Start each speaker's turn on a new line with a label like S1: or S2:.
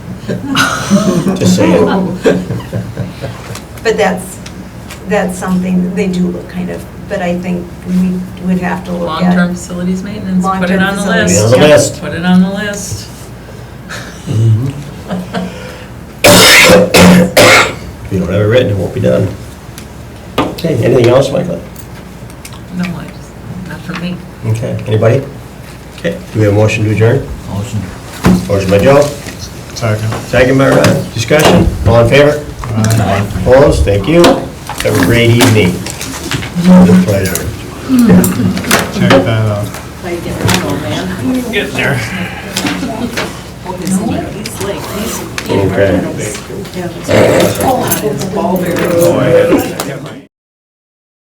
S1: Just saying.
S2: But that's, that's something, they do look kind of, but I think we would have to look at.
S3: Long-term facilities maintenance, put it
S2: Long-term
S3: on the
S2: facilities.
S1: Be
S3: list.
S1: on the
S3: Yep,
S1: list.
S3: Put it on the list.
S1: If you don't have it written, it won't be done. Okay, anything else, Michael?
S3: No, I just, not for me.
S1: Okay, anybody? Okay, do we have a motion to adjourn?
S4: Motion.
S1: Motion by Joe,
S4: Second.
S1: second by Ron, discussion, all in favor? Opposed, thank you. Have a great evening. With pleasure.
S4: Check that out.
S3: Get there.
S1: Okay.
S5: It's all very
S4: Oh, I had it. Never mind.